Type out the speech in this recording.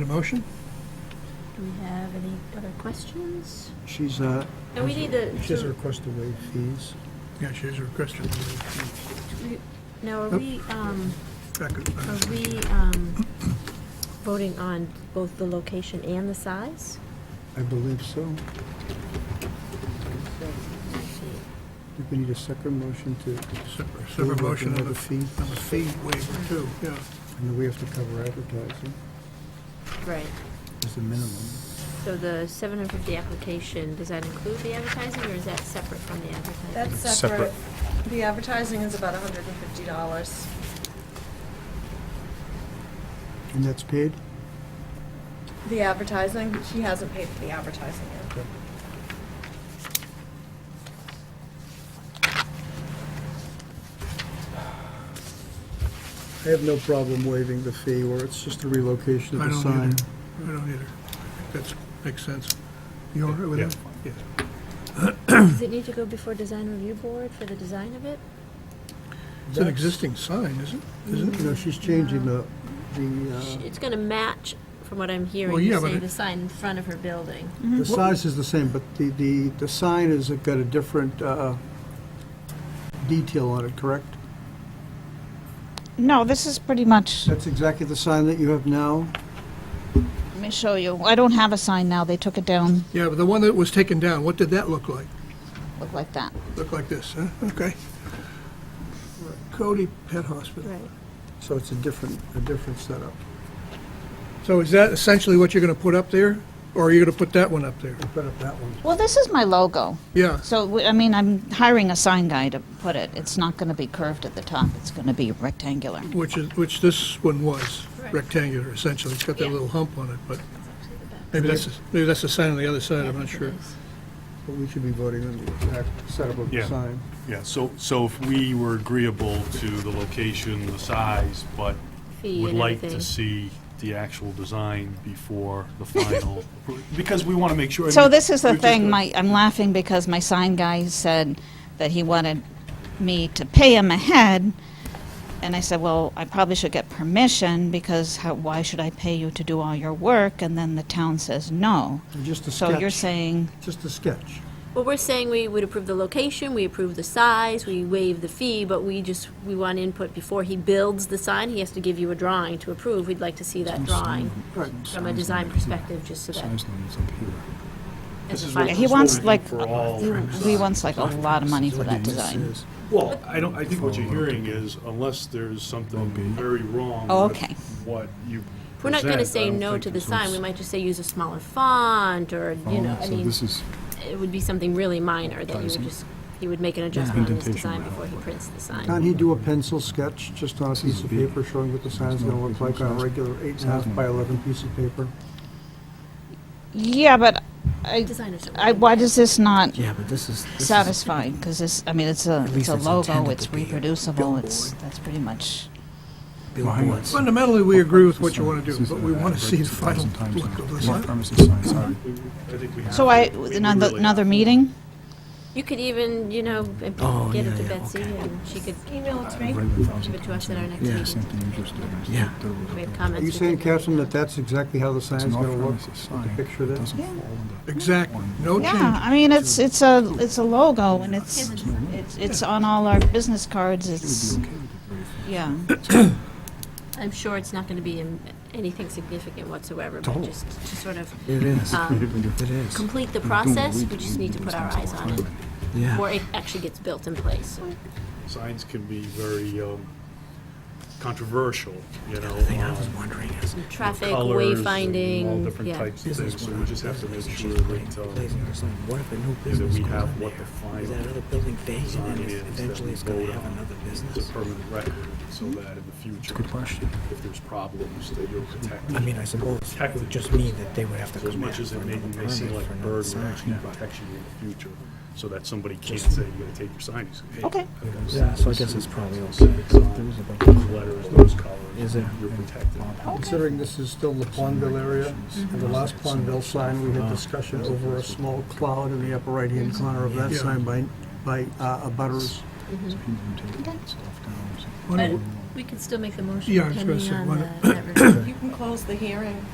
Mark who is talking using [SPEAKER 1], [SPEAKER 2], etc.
[SPEAKER 1] A motion?
[SPEAKER 2] Do we have any other questions?
[SPEAKER 3] She's, uh,
[SPEAKER 2] No, we need the,
[SPEAKER 3] she has a request to waive fees.
[SPEAKER 1] Yeah, she has a request.
[SPEAKER 2] no, are we, um,
[SPEAKER 1] Second.
[SPEAKER 2] are we, um, voting on both the location and the size?
[SPEAKER 3] I believe so. I think we need a separate motion to,
[SPEAKER 1] Separate- Separate motion on the
[SPEAKER 3] Another fee.
[SPEAKER 1] on the fee waiver too, yeah.
[SPEAKER 3] and then we have to cover advertising
[SPEAKER 2] Right.
[SPEAKER 3] as a minimum.
[SPEAKER 2] So the seven hundred fifty application, does that include the advertising, or is that separate from the advertising?
[SPEAKER 4] That's
[SPEAKER 5] Separate.
[SPEAKER 4] separate. The advertising is about hundred and fifty dollars.
[SPEAKER 3] And that's paid?
[SPEAKER 4] The advertising, she hasn't paid for the advertising yet.
[SPEAKER 3] I have no problem waiving the fee, or it's just a relocation
[SPEAKER 1] I
[SPEAKER 3] of
[SPEAKER 1] don't
[SPEAKER 3] the sign.
[SPEAKER 1] either. I don't either. That makes sense. You all right with
[SPEAKER 5] Yeah.
[SPEAKER 1] that? Yes.
[SPEAKER 2] Does it need to go before design review board for the design of it?
[SPEAKER 1] It's an existing sign, isn't it? Isn't it?
[SPEAKER 3] No, she's changing the,
[SPEAKER 2] Sh-
[SPEAKER 3] the, uh,
[SPEAKER 2] It's gonna match, from what I'm hearing,
[SPEAKER 1] Uh, Well,
[SPEAKER 2] you
[SPEAKER 1] yeah, but
[SPEAKER 2] say
[SPEAKER 1] it-
[SPEAKER 2] the sign in front of her building.
[SPEAKER 3] uh, the size is the same, but the, the, the sign has got a different, uh, detail on it, correct?
[SPEAKER 6] No, this is pretty much.
[SPEAKER 3] That's exactly the sign that you have now?
[SPEAKER 6] Let me show you. I don't have a sign now. They took it down.
[SPEAKER 1] Yeah, but the one that was taken down, what did that look like?
[SPEAKER 6] Look like that.
[SPEAKER 1] Look like this, huh? Okay. Cody Pet Hospital.
[SPEAKER 3] So it's a different, a different setup.
[SPEAKER 1] So is that essentially what you're going to put up there? Or are you going to put that one up there?
[SPEAKER 3] Put up that one.
[SPEAKER 6] Well, this is my logo.
[SPEAKER 1] Yeah,
[SPEAKER 6] So, w- I mean, I'm hiring a sign guy to put it. It's not going to be curved at the top, it's going to be rectangular.
[SPEAKER 1] which is, which this one was,
[SPEAKER 2] Right.
[SPEAKER 1] rectangular essentially. It's got that little hump on it, but
[SPEAKER 2] Right.
[SPEAKER 1] maybe that's, maybe that's the sign on the other side, I'm not sure.
[SPEAKER 3] But we should be voting on the exact setup of the
[SPEAKER 5] Yeah.
[SPEAKER 3] sign.
[SPEAKER 5] Yeah, so, so if we were agreeable to the location, the size, but
[SPEAKER 2] Fee
[SPEAKER 5] would
[SPEAKER 2] and
[SPEAKER 5] like to
[SPEAKER 2] everything.
[SPEAKER 5] see the actual design before the final, appro- because we want to make sure.
[SPEAKER 6] So, this is the
[SPEAKER 5] We've just
[SPEAKER 6] thing.
[SPEAKER 5] got-
[SPEAKER 6] My, I'm laughing because my sign guy said that he wanted me to pay him ahead. And I said, well, I probably should get permission because how, why should I pay you to do all your work? And then the town says no.
[SPEAKER 3] And Just a
[SPEAKER 6] So, you're
[SPEAKER 3] sketch,
[SPEAKER 6] saying
[SPEAKER 3] just a sketch.
[SPEAKER 2] Well, we're saying we would approve the location, we approve the size, we waive the fee, but we just, we want input before he builds the sign. He has to give you a drawing to approve. We'd like to see that drawing
[SPEAKER 3] Right.
[SPEAKER 2] from a design perspective, just so that.
[SPEAKER 5] This is
[SPEAKER 2] fine.
[SPEAKER 5] what-
[SPEAKER 2] Yeah,
[SPEAKER 6] he
[SPEAKER 5] this is what
[SPEAKER 6] wants,
[SPEAKER 5] we do
[SPEAKER 6] like,
[SPEAKER 5] For all.
[SPEAKER 6] he wants like a lot of money for that design.
[SPEAKER 5] Well, I don't, I think what you're hearing is unless there's something very wrong.
[SPEAKER 6] Oh,
[SPEAKER 5] with
[SPEAKER 6] okay.
[SPEAKER 5] What you.
[SPEAKER 2] We're not gonna
[SPEAKER 5] present, I
[SPEAKER 2] say
[SPEAKER 5] don't
[SPEAKER 2] no
[SPEAKER 5] think
[SPEAKER 2] to the
[SPEAKER 5] it's what's-
[SPEAKER 2] sign. We might just say use a smaller font or, you
[SPEAKER 7] Oh,
[SPEAKER 2] know, I mean,
[SPEAKER 8] is.
[SPEAKER 2] it would be something really minor that you would
[SPEAKER 8] Advertising.
[SPEAKER 2] just, he would make an adjustment on his
[SPEAKER 8] Indentation
[SPEAKER 2] design
[SPEAKER 8] would
[SPEAKER 2] before he
[SPEAKER 8] help.
[SPEAKER 2] prints the sign.
[SPEAKER 3] Can't he do a pencil sketch, just on a piece of
[SPEAKER 8] big.
[SPEAKER 3] paper, showing what the sign's gonna look like on a regular eight and a half by eleven piece of paper?
[SPEAKER 6] Yeah, but I,
[SPEAKER 2] Design is.
[SPEAKER 6] I, why does this not
[SPEAKER 7] Yeah, but this is. this is-
[SPEAKER 6] satisfy? Because this, I mean, it's a, it's
[SPEAKER 7] least
[SPEAKER 6] a
[SPEAKER 7] it's
[SPEAKER 6] logo,
[SPEAKER 7] intended
[SPEAKER 6] it's
[SPEAKER 7] to be a
[SPEAKER 6] reproducible, it's, that's pretty much.
[SPEAKER 7] Billboards.
[SPEAKER 1] Fundamentally, we agree with what you want to do, but we want to see the final look of the sign.
[SPEAKER 5] I think we have
[SPEAKER 6] So
[SPEAKER 5] to-
[SPEAKER 6] I,
[SPEAKER 5] we
[SPEAKER 6] another,
[SPEAKER 5] really
[SPEAKER 6] another
[SPEAKER 5] have to.
[SPEAKER 6] meeting?
[SPEAKER 2] You could even, you know,
[SPEAKER 7] Oh,
[SPEAKER 2] get it
[SPEAKER 7] yeah,
[SPEAKER 2] to
[SPEAKER 7] yeah,
[SPEAKER 2] Betsy
[SPEAKER 7] okay.
[SPEAKER 2] and she could
[SPEAKER 4] Email it to me.
[SPEAKER 2] give it to us at our next
[SPEAKER 7] Yeah,
[SPEAKER 2] meeting.
[SPEAKER 8] Same thing you just did.
[SPEAKER 7] Yeah.
[SPEAKER 2] We have
[SPEAKER 3] Are
[SPEAKER 2] comments.
[SPEAKER 3] you
[SPEAKER 2] we
[SPEAKER 3] saying,
[SPEAKER 2] could make.
[SPEAKER 3] Catherine, that that's exactly how the
[SPEAKER 8] It's
[SPEAKER 3] sign's
[SPEAKER 8] an
[SPEAKER 3] gonna look?
[SPEAKER 8] off-premises sign.
[SPEAKER 3] the picture
[SPEAKER 8] It
[SPEAKER 3] there?
[SPEAKER 8] doesn't
[SPEAKER 6] Yeah.
[SPEAKER 8] fall under-
[SPEAKER 1] Exactly, no
[SPEAKER 6] Yeah,
[SPEAKER 1] change.
[SPEAKER 6] I mean, it's, it's a, it's a logo and it's, it's, it's on all our business cards, it's,
[SPEAKER 8] It would be okay with the very first-
[SPEAKER 6] yeah.
[SPEAKER 2] I'm sure it's not going to be in- anything significant whatsoever, but just to sort of
[SPEAKER 7] It is,
[SPEAKER 2] um,
[SPEAKER 7] it is,
[SPEAKER 2] complete the
[SPEAKER 8] We're doing what
[SPEAKER 2] process,
[SPEAKER 8] we
[SPEAKER 2] we
[SPEAKER 8] do.
[SPEAKER 2] just
[SPEAKER 8] We
[SPEAKER 2] need
[SPEAKER 8] do
[SPEAKER 2] to
[SPEAKER 8] these
[SPEAKER 2] put our
[SPEAKER 8] things
[SPEAKER 2] eyes
[SPEAKER 8] all
[SPEAKER 2] on
[SPEAKER 8] the
[SPEAKER 2] it,
[SPEAKER 8] time.
[SPEAKER 7] yeah.
[SPEAKER 2] or it actually gets built in place.
[SPEAKER 5] Signs can be very um, controversial, you know.
[SPEAKER 7] The thing I was
[SPEAKER 5] um,
[SPEAKER 7] wondering is,
[SPEAKER 2] Traffic,
[SPEAKER 5] colors and all
[SPEAKER 2] wayfinding,
[SPEAKER 5] different
[SPEAKER 2] yeah.
[SPEAKER 5] types of
[SPEAKER 7] business
[SPEAKER 5] things, so
[SPEAKER 7] one,
[SPEAKER 5] we just have to
[SPEAKER 7] business
[SPEAKER 5] make
[SPEAKER 7] is
[SPEAKER 5] sure
[SPEAKER 7] just putting
[SPEAKER 5] that, um,
[SPEAKER 7] place in this thing. What if a new
[SPEAKER 5] that we
[SPEAKER 7] business goes
[SPEAKER 5] have
[SPEAKER 7] in
[SPEAKER 5] what the
[SPEAKER 7] there?
[SPEAKER 5] final
[SPEAKER 7] Is that other building vacant
[SPEAKER 5] design
[SPEAKER 7] and it's-
[SPEAKER 5] is that
[SPEAKER 7] eventually
[SPEAKER 5] we
[SPEAKER 7] it's gonna
[SPEAKER 5] vote
[SPEAKER 7] have
[SPEAKER 5] on.
[SPEAKER 7] another
[SPEAKER 5] It's
[SPEAKER 7] business? Hmm?
[SPEAKER 5] a permanent record, so that in the future,
[SPEAKER 8] Good question.
[SPEAKER 5] if there's problems, that you're protected.
[SPEAKER 7] Hmm. I mean, I suppose it would just mean that they would have to
[SPEAKER 5] So as
[SPEAKER 7] come back
[SPEAKER 5] much as
[SPEAKER 7] for
[SPEAKER 5] it may,
[SPEAKER 7] another
[SPEAKER 5] may seem
[SPEAKER 7] permit
[SPEAKER 5] like
[SPEAKER 7] for
[SPEAKER 5] a
[SPEAKER 7] another
[SPEAKER 5] burden, it actually
[SPEAKER 7] sign.
[SPEAKER 5] protects you in the future, so that somebody can't say, you're gonna take your sign, you say, hey.
[SPEAKER 7] Oh.
[SPEAKER 6] Okay.
[SPEAKER 5] I've got a
[SPEAKER 7] Yeah,
[SPEAKER 5] sign,
[SPEAKER 7] so I
[SPEAKER 5] this
[SPEAKER 7] guess
[SPEAKER 5] is
[SPEAKER 7] it's probably
[SPEAKER 5] the
[SPEAKER 7] okay.
[SPEAKER 5] sign,
[SPEAKER 7] There is a bunch
[SPEAKER 5] Those
[SPEAKER 7] of-
[SPEAKER 5] letters, those colors,
[SPEAKER 7] Is there?
[SPEAKER 5] you're protected.
[SPEAKER 3] Considering this is still the Pondville area, and the last Pondville sign, we had discussion over a small cloud in the upper right-hand corner of that
[SPEAKER 1] Yeah.
[SPEAKER 3] sign by, by, uh, abutters.
[SPEAKER 8] So he didn't take it off down, so-
[SPEAKER 1] Why don't-
[SPEAKER 2] We could still make the motion
[SPEAKER 1] Yeah, I was gonna pending say, on why
[SPEAKER 2] that.
[SPEAKER 4] You can close the hearing